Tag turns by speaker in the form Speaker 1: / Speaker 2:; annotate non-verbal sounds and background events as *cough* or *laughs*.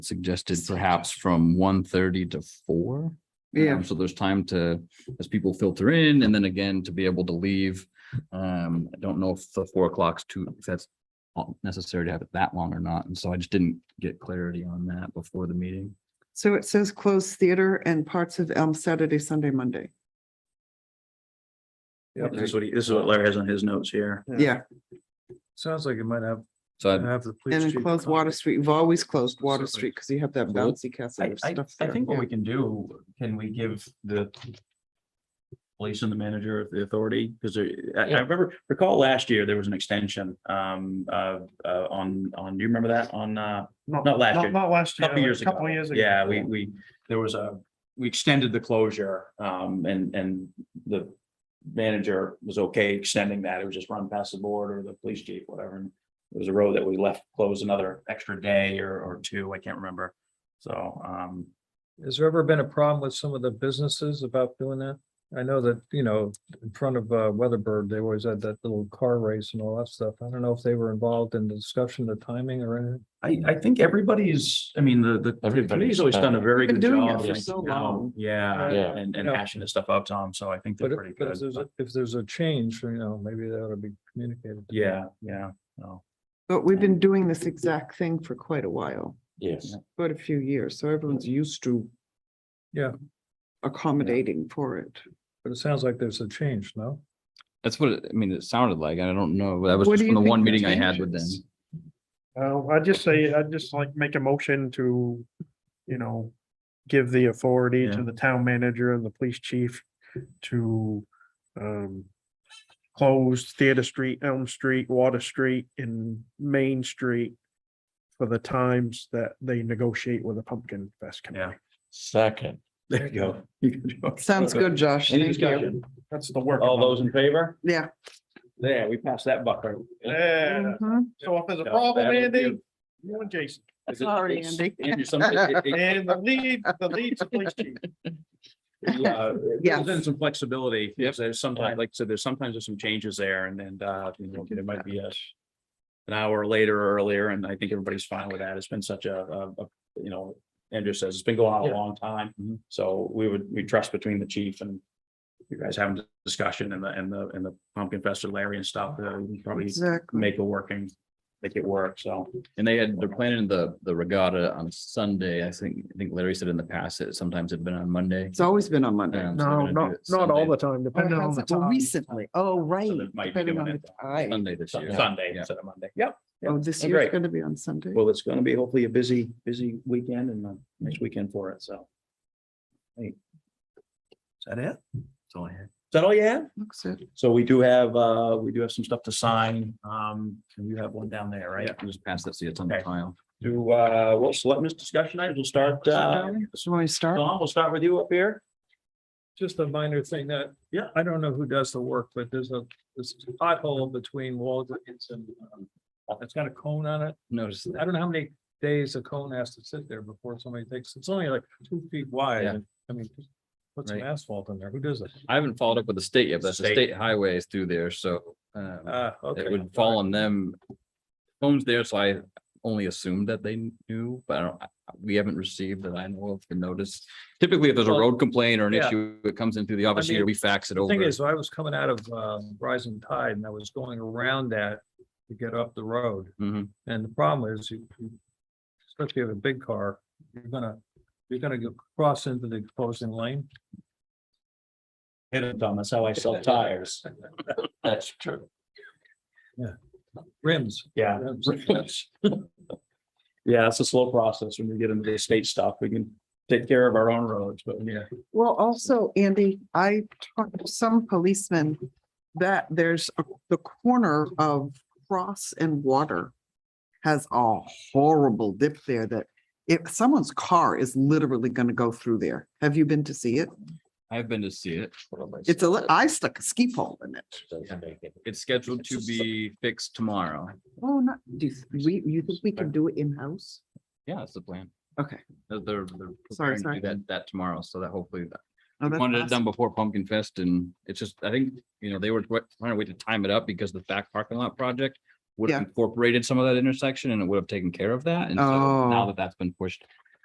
Speaker 1: suggested perhaps from 1:30 to four.
Speaker 2: Yeah,
Speaker 1: Um, So there's time to, as people filter in and then again to be able to leave. Um, I don't know if the four o'clock's too, if that's necessary to have it that long or not. And so I just didn't get clarity on that before the meeting.
Speaker 2: so it says closed theater and parts of Elm Saturday, Sunday, Monday.
Speaker 3: Yep.
Speaker 4: This is what he, this is what Larry has on his notes here.
Speaker 2: Yeah,
Speaker 3: Sounds like it might have,
Speaker 1: So I-
Speaker 3: have the. police
Speaker 2: and then
Speaker 3: chief
Speaker 2: close
Speaker 3: come.
Speaker 2: Water Street. You've always closed Water
Speaker 3: Certainly.
Speaker 2: Street because you have that
Speaker 1: Well,
Speaker 2: bouncy castle
Speaker 4: I,
Speaker 2: of
Speaker 4: I,
Speaker 2: stuff.
Speaker 4: I
Speaker 2: there,
Speaker 4: think what
Speaker 2: yeah.
Speaker 4: we can do, can we give the police and the manager the authority? Because I, I remember, recall last year, there was an extension, um, uh, uh, on, on, do you remember that? On, uh, not last year.
Speaker 3: Not, not last year.
Speaker 4: couple
Speaker 3: like a
Speaker 4: years ago.
Speaker 3: Couple years ago.
Speaker 4: Yeah, we, we, there was a, we extended the closure, um, and, and the manager was okay extending that. It was just run past the board or the police chief, whatever. And It was a road that we left closed another extra day or, or two. I can't remember. So, um,
Speaker 3: Has there ever been a problem with some of the businesses about doing that? I know that, you know, in front of uh, Weatherbird, they always had that little car race and all that stuff. I don't know if they were involved in the discussion, the timing or anything.
Speaker 4: I, I think everybody's, I mean, the, the- the, committee's always done a very
Speaker 2: Been
Speaker 4: good
Speaker 2: doing it
Speaker 4: job.
Speaker 2: for
Speaker 4: like,
Speaker 2: so
Speaker 4: you know,
Speaker 2: long.
Speaker 4: Yeah,
Speaker 3: Yeah.
Speaker 4: and, and
Speaker 3: Uh, Yeah.
Speaker 4: hashing this stuff out, Tom. So I think
Speaker 3: But
Speaker 4: they're
Speaker 3: if,
Speaker 4: pretty
Speaker 3: but if
Speaker 4: good.
Speaker 3: there's, a- if there's a change, you know, maybe that ought to be communicated.
Speaker 4: Yeah, yeah. So,
Speaker 2: But we've been doing this exact thing for quite a while,
Speaker 5: Yes,
Speaker 2: quite a few years, so everyone's used to.
Speaker 3: Yeah.
Speaker 2: Accommodating for it.
Speaker 3: But it sounds like there's a change, no?
Speaker 1: that's what, it- I mean, it sounded like, I don't know, that was
Speaker 2: What
Speaker 1: just
Speaker 2: do
Speaker 1: from
Speaker 2: you
Speaker 1: the one
Speaker 2: think the
Speaker 1: meeting I had
Speaker 2: change
Speaker 1: with them.
Speaker 2: is?
Speaker 6: Uh, I'd just say, I'd just like make a motion to, you know, give the authority
Speaker 4: Yeah.
Speaker 6: to the town manager and the police chief to um close Theater Street, Elm Street, Water Street and Main Street for the times that they negotiate with the Pumpkin Fest Committee.
Speaker 5: second.
Speaker 4: there you go. You can do it.
Speaker 2: Sounds good, Josh.
Speaker 4: Any
Speaker 2: Thank you.
Speaker 4: discussion?
Speaker 6: That's the work.
Speaker 4: All those in favor?
Speaker 2: Yeah.
Speaker 4: There, we passed that bucker. Uh,
Speaker 6: Yeah,
Speaker 2: Mhm.
Speaker 6: Uh, so if there's a
Speaker 4: Yeah,
Speaker 6: problem,
Speaker 4: that'll
Speaker 6: Andy,
Speaker 4: do.
Speaker 6: you and Jason,
Speaker 2: Sorry,
Speaker 4: It's-
Speaker 2: Andy.
Speaker 4: Andy, some- it-
Speaker 6: *laughs*
Speaker 4: it-
Speaker 6: and the lead, the lead's the police chief.
Speaker 4: yeah, it
Speaker 2: Yes.
Speaker 4: gives them uh, some flexibility, because there's sometimes, like, so there's sometimes there's some changes there, and then, uh, you know, it might be a. An hour later or earlier, and I think everybody's fine with that, it's been such a, a, a- you know, Andrew says, it's been going on a
Speaker 3: Yeah.
Speaker 4: long time, so we would, we trust between the chief and. You guys having a discussion and the, and the, and the pumpkin fest with Larry and stuff, uh, we can probably
Speaker 2: Exactly.
Speaker 4: make it working, make it work, so.
Speaker 1: And they had, they're planning the, the regatta on Sunday. I think, I think Larry said in the past, it sometimes had been on Monday.
Speaker 2: It's always been on Monday.
Speaker 1: Um, so they're
Speaker 6: No,
Speaker 1: gonna do
Speaker 6: not,
Speaker 1: it
Speaker 6: not
Speaker 1: Sunday-
Speaker 6: all the time,
Speaker 2: Or
Speaker 6: depending on
Speaker 2: has
Speaker 6: the
Speaker 2: it- well,
Speaker 6: time.
Speaker 2: Recently, oh, right.
Speaker 4: they might be
Speaker 2: Depending
Speaker 4: doing
Speaker 2: on
Speaker 4: it
Speaker 2: the time.
Speaker 1: Sunday this year.
Speaker 4: Sunday
Speaker 1: Yeah.
Speaker 4: instead of Monday, yep.
Speaker 2: Oh, this
Speaker 4: Oh,
Speaker 2: year's
Speaker 4: great.
Speaker 2: gonna be on Sunday.
Speaker 4: Well, it's gonna be hopefully a busy, busy weekend and a nice weekend for it, so. Hey. Is that it? Is
Speaker 1: That's all I had.
Speaker 4: that all you have?
Speaker 2: Looks it.
Speaker 4: So we do have, uh, we do have some stuff to sign, um, and you have one down there, right?
Speaker 1: Yeah, just pass that, so it's on the
Speaker 4: Okay.
Speaker 1: pile.
Speaker 4: Do, uh, well, selectmen's discussion items, we'll start, uh,
Speaker 2: Should we start?
Speaker 4: Don, we'll start with you up here.
Speaker 3: Just a minor thing that.
Speaker 4: Yeah.
Speaker 3: I don't know who does the work, but there's a, this pothole between Walgreens and, um, it's got a cone on it.
Speaker 1: Notice
Speaker 3: I
Speaker 1: that.
Speaker 3: don't know how many days a cone has to sit there before somebody takes, it's only like two feet wide.
Speaker 1: Yeah.
Speaker 3: and, I mean, just put some
Speaker 1: Right.
Speaker 3: asphalt in there. Who does it?
Speaker 1: I haven't followed up with the state yet. but That's the
Speaker 4: State.
Speaker 1: state highways through there, so um,
Speaker 3: Ah, okay.
Speaker 1: it would fall on them. Phones there, so I only assumed that they knew, but I don't, I- we haven't received that I know of the notice. Typically, if there's a
Speaker 3: Well,
Speaker 1: road complaint or an
Speaker 3: yeah.
Speaker 1: issue, it comes in through the office here,
Speaker 3: mean,
Speaker 1: we fax it
Speaker 3: The
Speaker 1: over.
Speaker 3: Thing is, I was coming out of, um, Rising Tide and I was going around that to get up the road.
Speaker 1: Mhm.
Speaker 3: And the problem is, you- you- especially if you have a big car, you're gonna, you're gonna go cross into the opposing lane.
Speaker 4: Hit it, Don, that's how I *laughs* sell tires. That's true.
Speaker 3: Rims.
Speaker 4: Yeah.
Speaker 3: rims.
Speaker 4: *laughs* Yeah, it's a slow process when we get into the state stuff. We can take care of our own roads, but yeah.
Speaker 2: Well, also, Andy, I talked to some policemen that there's a- the corner of Cross and Water has a horrible dip there that if someone's car is literally gonna go through there. Have you been to see it?
Speaker 1: I've been to see it.
Speaker 2: It's a, li- I stuck a ski pole in it.
Speaker 1: It's scheduled to be fixed tomorrow.
Speaker 2: Oh, not, do you- we, you think we can do it in-house?
Speaker 1: Yeah, that's the plan.
Speaker 2: Okay.
Speaker 1: They're, they're they're
Speaker 2: Sorry,
Speaker 1: preparing to
Speaker 2: sorry.
Speaker 1: do that, that tomorrow, so that hopefully that
Speaker 2: Oh, that's
Speaker 1: wanted it
Speaker 2: awesome.
Speaker 1: done before Pumpkin Fest and it's just, I think, you know, they were trying to wait to time it up because the back parking lot project would have incorporated some of that intersection and it would have taken care of that. And so now
Speaker 2: Oh.
Speaker 1: that that's been pushed